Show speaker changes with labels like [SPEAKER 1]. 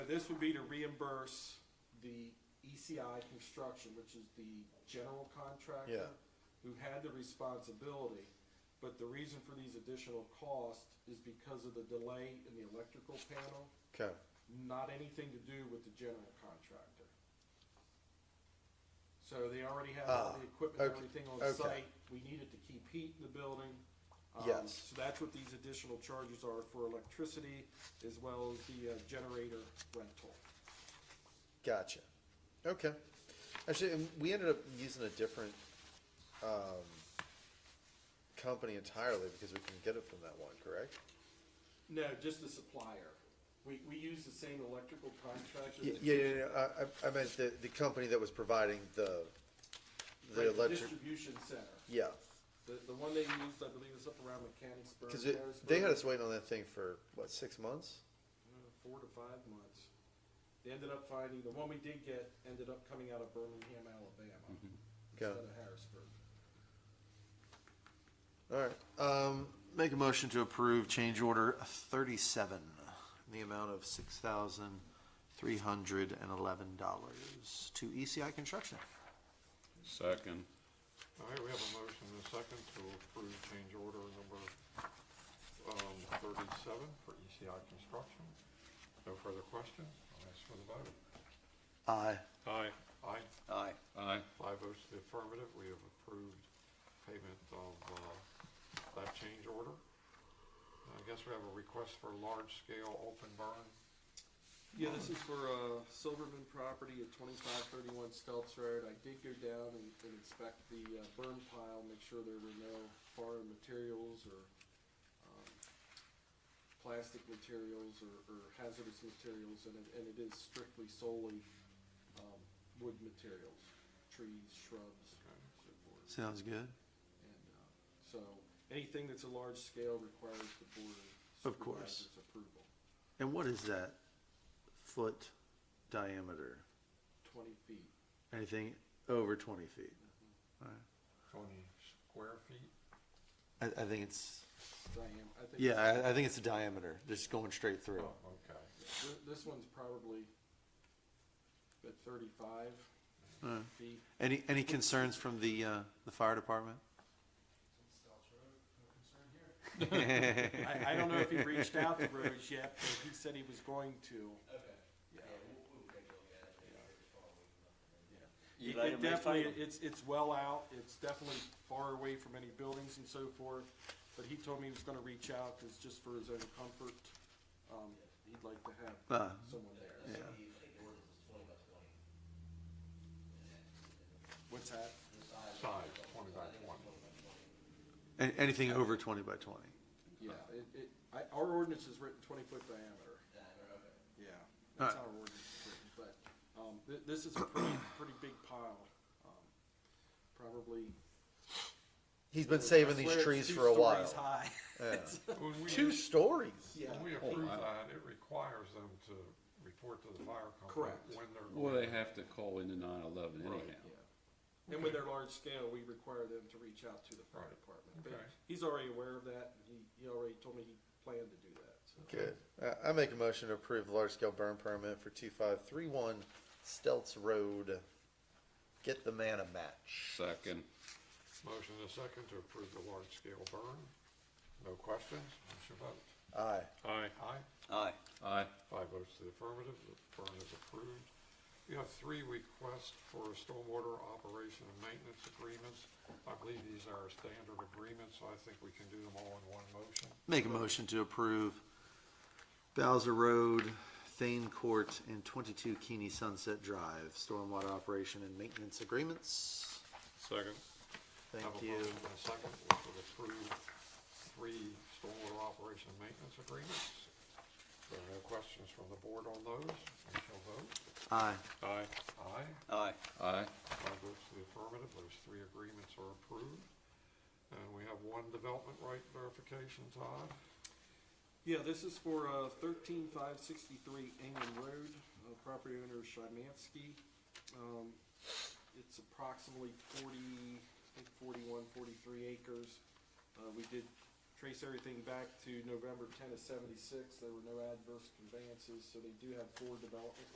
[SPEAKER 1] this would be to reimburse the ECI Construction, which is the general contractor
[SPEAKER 2] Yeah.
[SPEAKER 1] who had the responsibility, but the reason for these additional costs is because of the delay in the electrical panel,
[SPEAKER 2] Okay,
[SPEAKER 1] not anything to do with the general contractor. So they already have all
[SPEAKER 2] Ah,
[SPEAKER 1] the equipment,
[SPEAKER 2] okay,
[SPEAKER 1] everything on
[SPEAKER 2] okay.
[SPEAKER 1] site, we needed to keep heat in the building. Um,
[SPEAKER 2] Yes.
[SPEAKER 1] So that's what these additional charges are for electricity, as well as the uh, generator rental.
[SPEAKER 2] gotcha. Okay. Actually, and we ended up using a different um, company entirely because we couldn't get it from that one, correct?
[SPEAKER 1] No, just the supplier. We, we use the same electrical contractor.
[SPEAKER 2] Yeah,
[SPEAKER 1] that-
[SPEAKER 2] yeah, yeah, yeah, I, I- I meant the, the company that was providing the,
[SPEAKER 1] like
[SPEAKER 2] the electric,
[SPEAKER 1] Distribution center.
[SPEAKER 2] yeah.
[SPEAKER 1] The, the one they used, I believe, is up around Mechanicsburg.
[SPEAKER 2] Cause it, they had
[SPEAKER 1] Harrisburg.
[SPEAKER 2] us waiting on that thing for, what, six months?
[SPEAKER 1] Uh, Four to five months. They ended up finding, the one we did get ended up coming out of Birmingham, Alabama, instead
[SPEAKER 2] Okay.
[SPEAKER 1] of Harrisburg.
[SPEAKER 2] Alright, um, make a motion to approve change order thirty-seven, in the amount of six thousand three hundred and eleven dollars to ECI Construction.
[SPEAKER 3] Second,
[SPEAKER 4] All right, we have a motion and a second to approve change order number um, thirty-seven for ECI Construction. No further questions? I'll ask for the vote.
[SPEAKER 2] Aye.
[SPEAKER 3] aye.
[SPEAKER 4] Aye,
[SPEAKER 2] Aye.
[SPEAKER 3] Aye.
[SPEAKER 4] five votes to the affirmative, we have approved payment of uh, that change order. I guess we have a request for large-scale open burn.
[SPEAKER 1] Yeah, this is for, uh, Silverman property at twenty-five thirty-one Stelz Road. I did go down and, and inspect the uh, burn pile, make sure there were no foreign materials or, um, plastic materials or, or hazardous materials, and it, and it is strictly solely, um, wood materials, trees, shrubs, and so forth.
[SPEAKER 2] Sounds good.
[SPEAKER 1] And, uh, so, anything that's a large scale requires the board
[SPEAKER 2] Of course.
[SPEAKER 1] supervisor's approval.
[SPEAKER 2] And what is that foot diameter?
[SPEAKER 1] Twenty feet.
[SPEAKER 2] Anything over twenty feet?
[SPEAKER 4] Twenty square feet?
[SPEAKER 2] I, I think it's,
[SPEAKER 1] Diam- I think
[SPEAKER 2] yeah, I, I think it's a diameter, just going straight through.
[SPEAKER 4] Oh, okay.
[SPEAKER 1] Th- This one's probably at thirty-five
[SPEAKER 2] Uh,
[SPEAKER 1] feet.
[SPEAKER 2] Any, any concerns from the, uh, the fire department?
[SPEAKER 1] I, I don't know if he reached out to Rhodes yet, but he said he was going to.
[SPEAKER 5] You
[SPEAKER 1] It-
[SPEAKER 5] let
[SPEAKER 1] it
[SPEAKER 5] him make
[SPEAKER 1] definitely-
[SPEAKER 5] fun of
[SPEAKER 1] It's, it's well out, it's definitely far away from any buildings and so forth, but he told me he was gonna reach out, cause just for his own comfort, um, he'd like to have
[SPEAKER 2] Uh,
[SPEAKER 1] someone there.
[SPEAKER 2] yeah.
[SPEAKER 1] What's that?
[SPEAKER 4] Size, twenty by twenty.
[SPEAKER 2] An- Anything over twenty by twenty?
[SPEAKER 1] Yeah, Uh, it, it, I, our ordinance is written twenty foot diameter. Yeah, that's how our ordinance is written, but, um, thi- this is a pretty, pretty big pile, um, probably.
[SPEAKER 2] He's been saving
[SPEAKER 1] I
[SPEAKER 2] these
[SPEAKER 1] swear it's
[SPEAKER 2] trees
[SPEAKER 1] two
[SPEAKER 2] for a while.
[SPEAKER 1] stories high.
[SPEAKER 2] Yeah.
[SPEAKER 4] When we-
[SPEAKER 2] Two stories.
[SPEAKER 1] Yeah,
[SPEAKER 4] When we approve that, it requires them to report to the fire company
[SPEAKER 1] Correct.
[SPEAKER 4] when they're.
[SPEAKER 3] Well, they have to call into nine eleven anyhow.
[SPEAKER 1] yeah. And with their large scale, we require them to reach out to the fire
[SPEAKER 4] Right.
[SPEAKER 1] department, but
[SPEAKER 4] Okay.
[SPEAKER 1] he's already aware of that, and he, he already told me he planned to do that, so.
[SPEAKER 2] Good. Uh, I make a motion to approve large-scale burn permit for two-five-three-one Stelz Road. Get the man a match.
[SPEAKER 3] Second,
[SPEAKER 4] Motion and a second to approve the large-scale burn. No questions, what's your vote?
[SPEAKER 2] Aye.
[SPEAKER 3] aye.
[SPEAKER 4] Aye,
[SPEAKER 5] Aye.
[SPEAKER 3] Aye.
[SPEAKER 4] five votes to the affirmative, the burn is approved. We have three requests for stormwater operation and maintenance agreements. I believe these are standard agreements, so I think we can do them all in one motion.
[SPEAKER 2] Make a motion to approve Bowser Road, Thane Court, and twenty-two Keeney Sunset Drive, stormwater operation and maintenance agreements.
[SPEAKER 3] Second.
[SPEAKER 2] Thank
[SPEAKER 4] Have a
[SPEAKER 2] you.
[SPEAKER 4] motion and a second, which will approve three stormwater operation and maintenance agreements. There are no questions from the board on those. We shall vote.
[SPEAKER 2] Aye.
[SPEAKER 3] Aye.
[SPEAKER 4] Aye.
[SPEAKER 5] Aye.
[SPEAKER 3] Aye.
[SPEAKER 4] Five votes to the affirmative. Those three agreements are approved. And we have one development right verification, Todd.
[SPEAKER 1] Yeah, this is for uh, thirteen five sixty-three Ingham Road, uh, property owner Shymansky. Um, it's approximately forty, I think 41, 43 acres. Uh, we did trace everything back to November ten of seventy-six, there were no adverse conveyances, so they do have four development